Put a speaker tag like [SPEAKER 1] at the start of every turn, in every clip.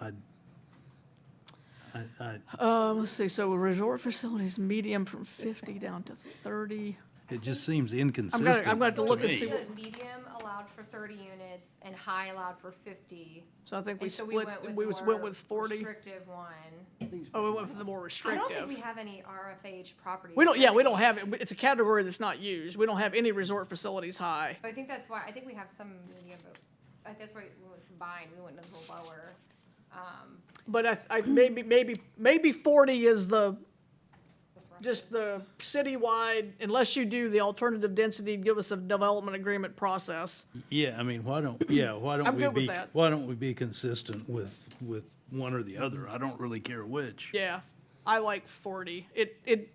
[SPEAKER 1] I, I, I,
[SPEAKER 2] Um, let's see, so resort facilities, medium from fifty down to thirty.
[SPEAKER 1] it just seems
[SPEAKER 2] I'm
[SPEAKER 1] inconsistent.
[SPEAKER 2] gonna, I'm gonna have to look and
[SPEAKER 1] me.
[SPEAKER 2] see, what-
[SPEAKER 3] The medium allowed for thirty units and high allowed for fifty.
[SPEAKER 2] so I think we
[SPEAKER 3] And so
[SPEAKER 2] split,
[SPEAKER 3] went with
[SPEAKER 2] we was-
[SPEAKER 3] more
[SPEAKER 2] went with forty,
[SPEAKER 3] Restrictive one.
[SPEAKER 2] oh, we went with the more
[SPEAKER 3] I don't think we
[SPEAKER 2] restrictive.
[SPEAKER 3] have any RFH properties.
[SPEAKER 2] We don't, yeah, we
[SPEAKER 3] So I
[SPEAKER 2] don't have, it. it's a category that's not used, we don't have any resort facilities high.
[SPEAKER 3] think- So I think that's why, I think we have some medium, but I think that's why it was combined, we went a little lower. Um,
[SPEAKER 2] But I, I, maybe, maybe, maybe forty is the,
[SPEAKER 3] the threshold.
[SPEAKER 2] just the citywide, unless you do the alternative density, give us a development agreement process.
[SPEAKER 1] Yeah, I mean, why don't, yeah, why don't
[SPEAKER 2] I'm
[SPEAKER 1] we
[SPEAKER 2] good with
[SPEAKER 1] be,
[SPEAKER 2] that.
[SPEAKER 1] why don't we be consistent with, with one or the other? I don't really care which.
[SPEAKER 2] Yeah, I like forty. It it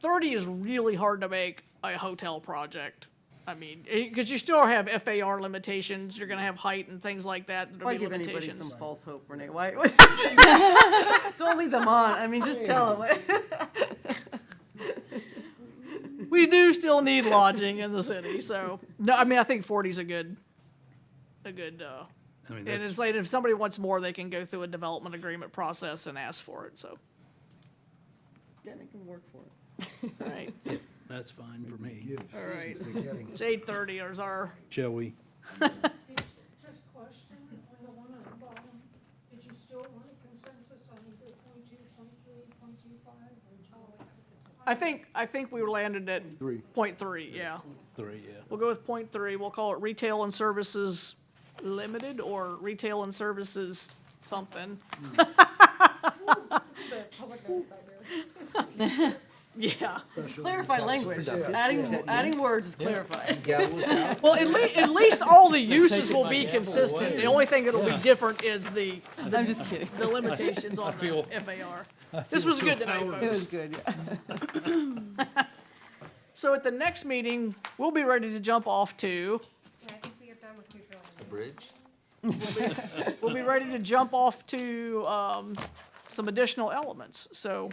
[SPEAKER 2] thirty is really hard to make a hotel project. I mean, because you still have FAR limitations. You're gonna have height and things like that. There'll
[SPEAKER 4] Why
[SPEAKER 2] be
[SPEAKER 4] give anybody
[SPEAKER 2] limitations.
[SPEAKER 4] some false hope, Renee? Why? Don't lead them on. I mean, just tell them.
[SPEAKER 2] We do still need lodging in the city, so no. I mean, I think forty's a good, a good. Uh,
[SPEAKER 1] I mean,
[SPEAKER 2] and
[SPEAKER 1] that's,
[SPEAKER 2] it's like if somebody wants more, they can go through a development agreement process and ask for it. So,
[SPEAKER 4] Yeah, make them work for it.
[SPEAKER 2] all right,
[SPEAKER 1] that's fine for me.
[SPEAKER 5] Gives
[SPEAKER 2] All right.
[SPEAKER 5] reasons they're getting.
[SPEAKER 2] it's eight thirty. Is our
[SPEAKER 1] Shall we?
[SPEAKER 6] Just question, on the one on the bottom, did you still want a consensus on either point two, point three, point two five, or
[SPEAKER 2] I think I think we landed at
[SPEAKER 5] Three.
[SPEAKER 2] point three. Yeah.
[SPEAKER 1] Three, yeah.
[SPEAKER 2] We'll go with point three. We'll call it retail and services limited or retail and services something. Yeah.
[SPEAKER 4] Clarify language. Adding adding words is clarified.
[SPEAKER 2] Well, at least, at least all the uses will be consistent. The only thing that'll be different is the,
[SPEAKER 4] I'm just kidding.
[SPEAKER 2] the limitations on the FAR. This was good tonight,
[SPEAKER 4] It
[SPEAKER 2] folks.
[SPEAKER 4] was good. Yeah.
[SPEAKER 2] So at the next meeting, we'll be ready to jump off to,
[SPEAKER 3] Yeah, I think we are done with neutral.
[SPEAKER 5] Bridge?
[SPEAKER 2] we'll be ready to jump off to, um, some additional elements. So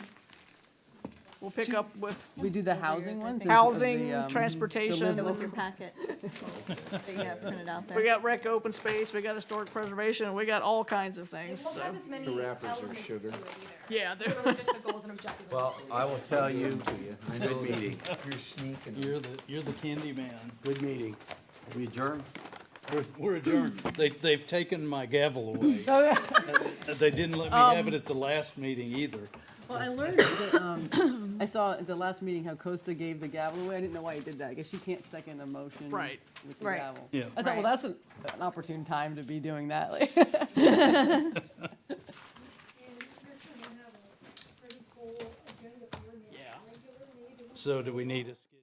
[SPEAKER 2] we'll pick up with
[SPEAKER 4] We do the housing ones. and the,
[SPEAKER 2] housing,
[SPEAKER 4] um,
[SPEAKER 2] transportation.
[SPEAKER 7] It was your packet that you have printed out
[SPEAKER 2] We
[SPEAKER 7] there.
[SPEAKER 2] got rec open space, we got historic preservation, we got all kinds of things,
[SPEAKER 3] It won't
[SPEAKER 2] so,
[SPEAKER 3] have as many
[SPEAKER 5] The wrappers are
[SPEAKER 3] elements to it
[SPEAKER 5] sugar.
[SPEAKER 3] either.
[SPEAKER 2] yeah, there-
[SPEAKER 3] Really just the goals and objectives.
[SPEAKER 8] Well, I will tell you,
[SPEAKER 5] To you. I know
[SPEAKER 8] good meeting.
[SPEAKER 5] you're sneaking.
[SPEAKER 1] You're the, you're the candy man.
[SPEAKER 8] Good meeting. We adjourn?
[SPEAKER 1] We're- We're adjourned. They, they've taken my gavel away. They didn't let me
[SPEAKER 2] Um,
[SPEAKER 1] have it at the last meeting either.
[SPEAKER 4] Well, I learned that. Um, I saw at the last meeting how Costa gave the gavel away. I didn't know why he did that. I guess you can't second a motion.
[SPEAKER 2] Right.
[SPEAKER 4] With the
[SPEAKER 7] Right.
[SPEAKER 4] gavel.
[SPEAKER 1] Yeah.
[SPEAKER 4] I thought, well,
[SPEAKER 7] Right.
[SPEAKER 4] that's an, an opportune time to be doing that. Like,
[SPEAKER 6] And you're gonna have a pretty full agenda for your next
[SPEAKER 2] Yeah.
[SPEAKER 6] regular meeting.
[SPEAKER 1] So do we need a?